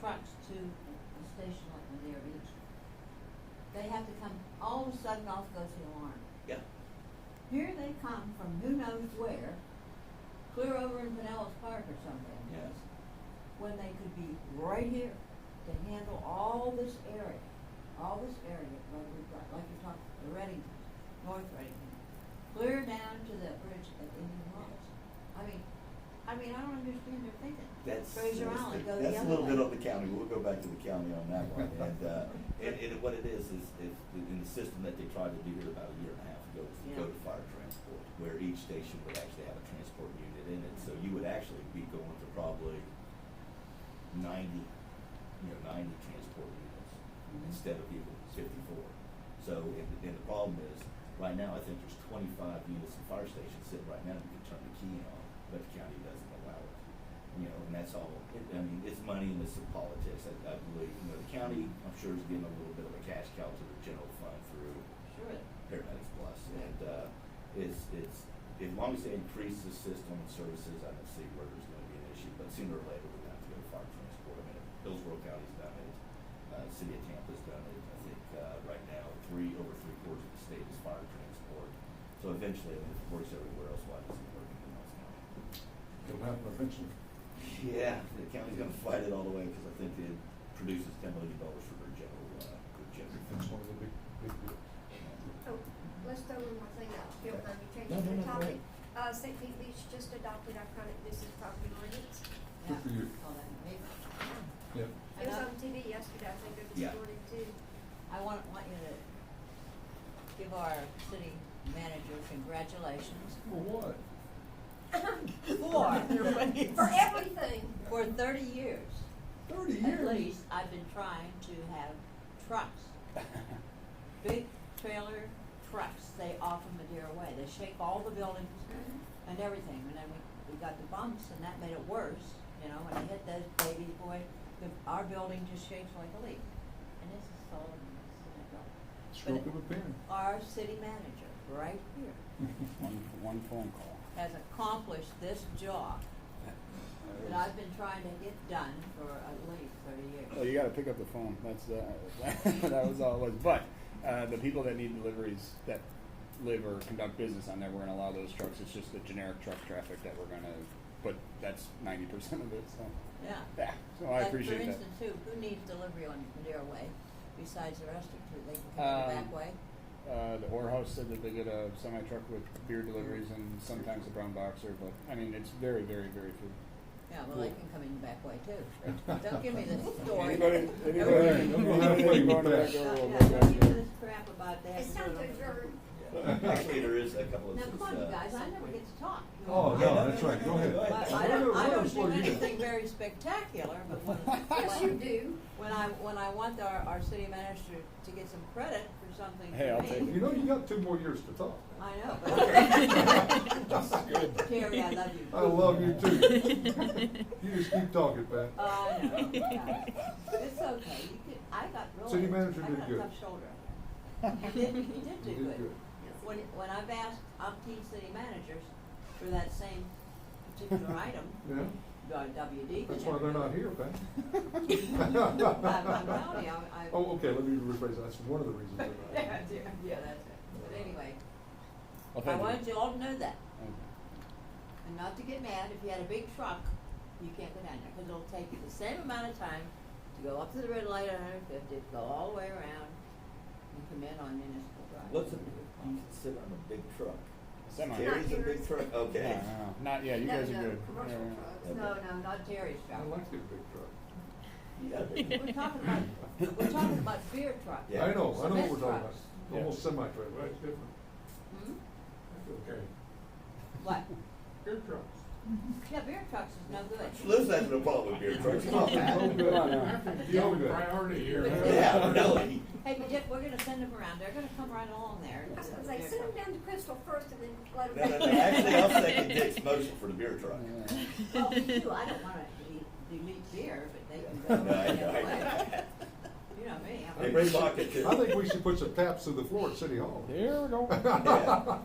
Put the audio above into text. trucks to the station like when they're reached. They have to come, all of a sudden off goes the alarm. Yeah. Here they come from who knows where, clear over in Pinellas Park or something. Yes. When they could be right here to handle all this area, all this area, like we've got, like you talked, the Reddington, North Reddington, clear down to the bridge at Indian Wells. I mean, I mean, I don't understand their thinking. That's, Fraser Island, go the other way. that's a little bit of the county, we'll go back to the county on that one, and, uh, and, and what it is, is, is in the system that they tried to do here about a year and a half ago, was to go Yeah. to fire transport, where each station would actually have a transport unit in it, so you would actually be going to probably ninety, you know, ninety transport units, Mhm. instead of even fifty-four. So, and, and the problem is, right now, I think there's twenty-five units in fire stations sitting right now, that you can turn the key on, but the county doesn't allow it you know, and that's all, it- I mean, it's money and it's some politics, I, I believe, you know, the county, I'm sure is getting a little bit of a cash cow to the general fund through Sure. paramedics plus, and, uh, it's, it's, as long as they increase the system and services, I don't see where there's gonna be an issue, but sooner or later, we're gonna have to go to fire transport, I mean, Hillsborough County's done it, uh, City of Tampa's done it, I think, uh, right now, three, over three quarters of the state is fire transport, so eventually, I mean, if it works everywhere else, why doesn't it work in Pinellas County? It'll happen eventually. Yeah, the county's gonna fight it all the way, because I think it produces ten million dollars for their general, uh, their general. That's one of the big, big deals. Oh, let's throw one more thing out, if you don't mind me No, no, no, changing the go topic. ahead. Uh, St. Pete Beach just adopted our chronic nuisance property ordinance. Good for you. Call that maybe. Yeah. It was And I- on TV yesterday, I think, or Yeah. this morning too. I want, want you to give our city manager congratulations For what? for, e, For everything. for thirty years, Thirty at years? least, I've been trying to have trucks. Big trailer trucks, they offer Madeira Way, they shake all the buildings and everything, and then we, we got the bumps, and that made it worse, you know, when you hit those babies, boy, the, our building just shakes like a leaf, and this is solid, and this is a building. Stroke of a pen. our city manager, right here, One, one phone call. has accomplished this job that I've been trying to get done for at least thirty Well, years. Oh, you got to pick up the phone. That's uh, that was all it was. But uh, the people that need deliveries that live or conduct business on there, we're going to allow those trucks. It's just the generic truck traffic that we're going to. But that's ninety percent of it. So Yeah. yeah. So Oh, I Like, appreciate that. For instance, who, who needs delivery on Madeira Way besides the rest of two? They can come the Um, back way? Uh, the Orr House said that they get a semi truck with beer deliveries and sometimes a brown boxer. But I mean, it's very, very, very few. Yeah, well, they cool. can come in the back way too. Don't give me this story. Anybody, anybody, Hey, don't go halfway anybody with going to that. that Yeah, girl? Don't give me this crap about that. It's time to adjourn. Yeah. Actually, there is a couple of. Now, come on, uh, you guys, I never get to talk. Oh, Yeah, no, that's right, go ahead. But I don't, I don't do anything very spectacular, but when. Yes, you do. When I, when I want our, our city manager to get some credit for something. Hey, I'll take You know, you got two more years to talk. I know. but- good. Terry, I love you. I love you too. You just keep talking, Pat. Uh, I know, yeah. It's okay, you could, I got really. City manager I did got a good. tough shoulder. He did, he did You do did good. good. When, when I've asked umpteen city managers for that same particular item, Yeah, uh, WD. that's why they're not here, Pat. I'm, I'm telling you, I, I. Oh, okay, let me rephrase, that. that's one of the reasons they're not Yeah, here. that's it, but anyway, Well, I thank you. Uh, wanted you all to know that. Thank you. And not to get mad, if you had a big truck, you can't go down there, because it'll take you the same amount of time to go up to the red light at hundred fifty, go all the way around, and come in on municipal drive. What's a, you consider them a big truck? Semi. Terry's a big yours. truck, okay. No, no, no. Not yeah. You No, guys are no, good. Commercial Yeah, yeah. trucks. No, no, not Terry's I truck. like their big truck. You got a big We're truck. talking about, we're talking about beer trucks. Yeah. I know, I know what we're talking about, Cement trucks. almost semi-trailer, right, different. Hmm? Okay. What? Beer trucks. Yeah, beer trucks is no good. Liz having a problem with beer trucks, come on, No Pat. good. Come on now. That's the only priority here. Yeah, really. Hey, but Dick, we're gonna send them around, they're gonna come right along there. I was gonna say, send them down to Crystal first and then let No, them. no, no, actually, I'll second Dick's motion for the beer truck. Yeah. Well, we do, I don't wanna de- delete beer, but they can No, go. I the know, other I way. know. You know me, I'm. Hey, Ray Lockett, too. I think we should put some taps to the floor at City Hall. There we go. Yeah.